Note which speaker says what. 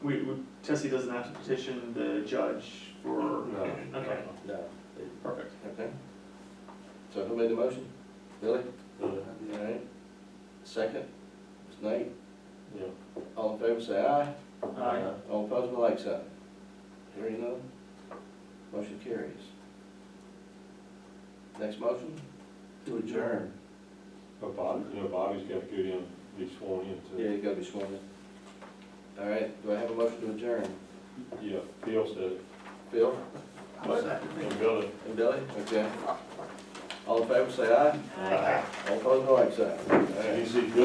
Speaker 1: We, we, Tessie doesn't have to petition the judge for,
Speaker 2: No.
Speaker 1: okay,
Speaker 2: No.
Speaker 1: perfect.
Speaker 2: Okay. So who made the motion? Billy?
Speaker 3: Billy.
Speaker 2: All right. Second, Ms. Knight,
Speaker 3: Yeah.
Speaker 2: all in favor, say aye.
Speaker 1: Aye.
Speaker 2: All opposed, like sign. Hearing none, motion carries. Next motion?
Speaker 4: To adjourn.
Speaker 3: But Bobby, you know, Bobby's got to go down, be sworn in
Speaker 2: Yeah,
Speaker 3: to,
Speaker 2: you gotta be sworn in. All right, do I have a motion to adjourn?
Speaker 3: yeah, Bill said it.
Speaker 2: Bill
Speaker 3: But- And Billy.
Speaker 2: and Billy? Okay. All in favor, say aye. All opposed, like sign.
Speaker 3: Uh,